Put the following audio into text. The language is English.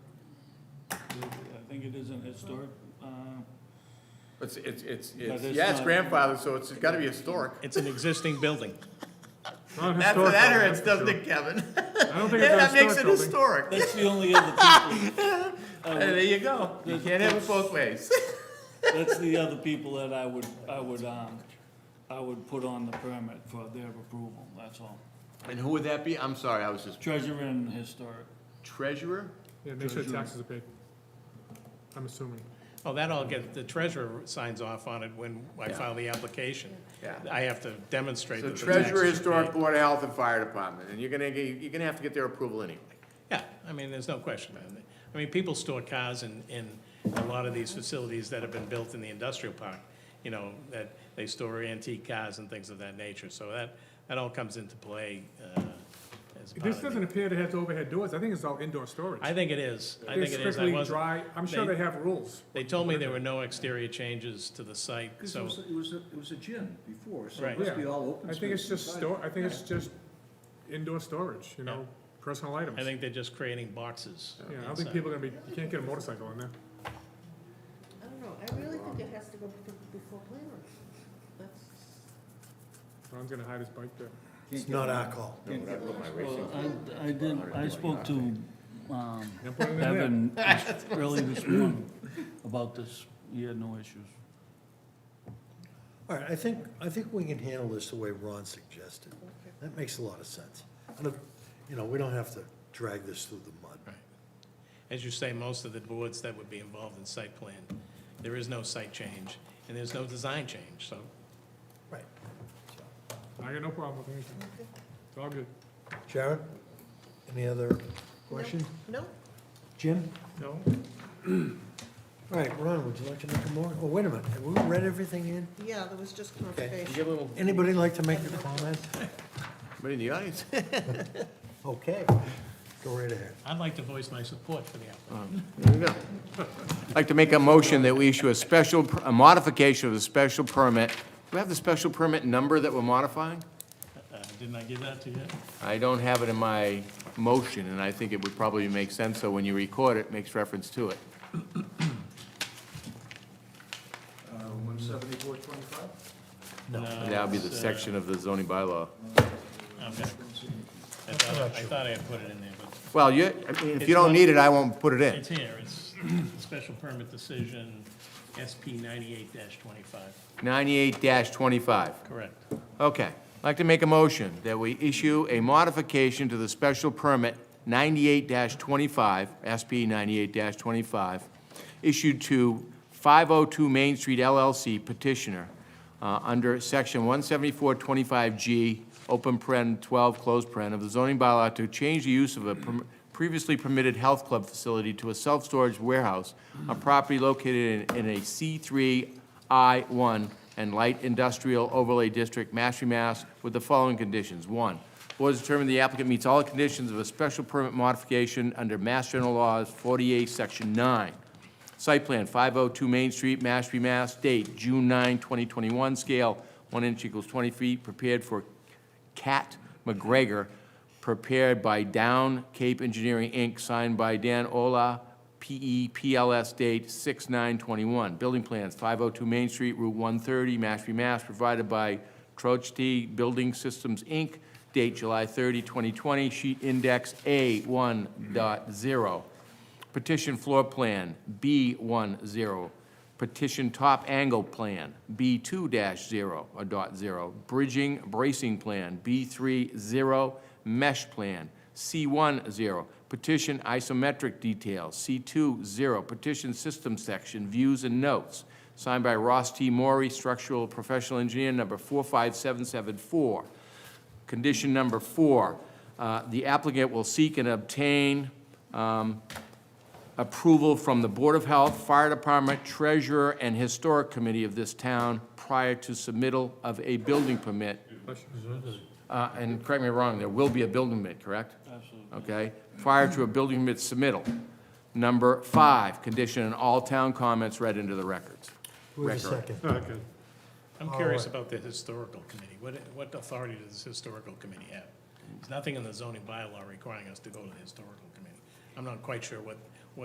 think it is an historic, uh, It's, it's, it's, it's it's, yeah, it's not- grandfathered, so it's gotta be historic. It's an existing building. That's, that hurts, doesn't it, Kevin? I don't think Yeah, that it's a makes it historic historic. building. that's the only other people. I And would- there you go. You There's- can't have it both ways. That's the other people that I would, I would, um, I would put on the permit for their approval, that's all. And who would that be? I'm sorry, I was just Treasurer and historic. treasurer? Yeah, make sure the taxes are paid. I'm assuming. Oh, that all get, the treasurer signs off on it when I Yeah. file the application. Yeah. I have to demonstrate So that the taxes. treasurer, are historic, paid. board of health, and fire department, and you're gonna, get- you're gonna have to get their approval anyway. Yeah, I mean, there's no question. I mean, people store cars in, in a lot of these facilities that have been built in the industrial park, you know, that they store antique cars and things of that nature. So that, that all comes into play uh, as part This of doesn't the. appear to have overhead doors. I think it's all indoor storage. I think it is. I They're think it is. I strictly wasn't- dry. I'm sure they- they have rules. They told me there were no exterior changes to the site, Because it so, was, it was, a- it was a gym before, so Right. it must Yeah. be all open I space. think it's just inside. store, I think it's just indoor storage, you know, personal items. I think they're just creating boxes. Yeah, I don't think people are gonna be, you can't get a motorcycle in there. I don't know, I really think it has to go bef- before planning. That's, Ron's gonna hide his bike there. It's not our call. Well, I, I did, I spoke to, um, Now put it in there. Evan early this morning about this. He had no issues. All right, I think, I think we can handle this the way Ron suggested. That makes a lot of sense. And if, you know, we don't have to drag this through the mud. As you say, most of the boards that would be involved in site plan, there is no site change, and there's no design change, so Right. I got no problem with anything. It's all good. Sharon, any other question? no, Jim? No? All right, Ron, would you like to make a more, oh, wait a minute, have we read everything in? yeah, there was just You conversation. get a little, Anybody like to make a comment? but in the audience? Okay, go right ahead. I'd like to voice my support for the applicant. There you go. I'd like to make a motion that we issue a special, per- a modification of the special permit. Do we have the special permit number that we're modifying? Uh, Didn't I give that to you? I don't have it in my motion, and I think it would probably make sense, so when you record it, it makes reference to it. One seventy-four twenty-five? No. That would be uh, the section of the zoning bylaw. Okay. I thought, I thought I had put it in there, but Well, you, I mean, if It's you don't one- need it, I won't put it in. it's here, it's special permit decision, SP ninety-eight twenty-five. Ninety-eight twenty-five. Correct. Okay. I'd like to make a motion that we issue a modification to the special permit ninety-eight twenty-five, SP ninety-eight twenty-five, issued to five oh two Main Street LLC petitioner, uh, under section one seventy-four twenty-five G, open paren, twelve, closed paren, of the zoning bylaw to change the use of a perm- previously permitted health club facility to a self-storage warehouse on property located in, in a C3 I-1 and Light Industrial Overlay District, Mashpee, Mass, with the following conditions. One, board has determined the applicant meets all the conditions of a special permit modification under Mass General Laws 48, Section 9. Site plan, 502 Main Street, Mashpee, Mass. Date, June 9, 2021. Scale, 1 inch equals 20 feet. Prepared for Cat McGregor, prepared by Down Cape Engineering, Inc., signed by Dan Ola, E PE, PLS date 6/9/21. Building plans, 502 Main Street, Route 130, Mashpee, Mass., provided by Troch T Building Systems, Inc., date July 30, 2020, sheet index A1.0. Petition floor plan, B10. Petition top angle plan, B2-0 or dot zero. Bridging bracing plan, B30. Mesh plan, C10. Petition isometric details, C20. Petition system section, views and notes. Signed by Ross T. Maury, structural professional engineer, number 45774. Condition number four, uh, the applicant will seek and obtain um, approval from the Board of Health, Fire Department, Treasurer, and Historic Committee of this town prior to submittal of a building permit. Uh, And correct me if I'm wrong, there will be a building permit, correct? Absolutely. Okay, prior to a building permit submittal. Number five, condition and all town comments read into the records. Who has a Record. second? Okay. I'm curious about the historical committee. What, what authority does this historical committee have? There's nothing in the zoning bylaw requiring us to go to the historical committee. I'm not quite sure what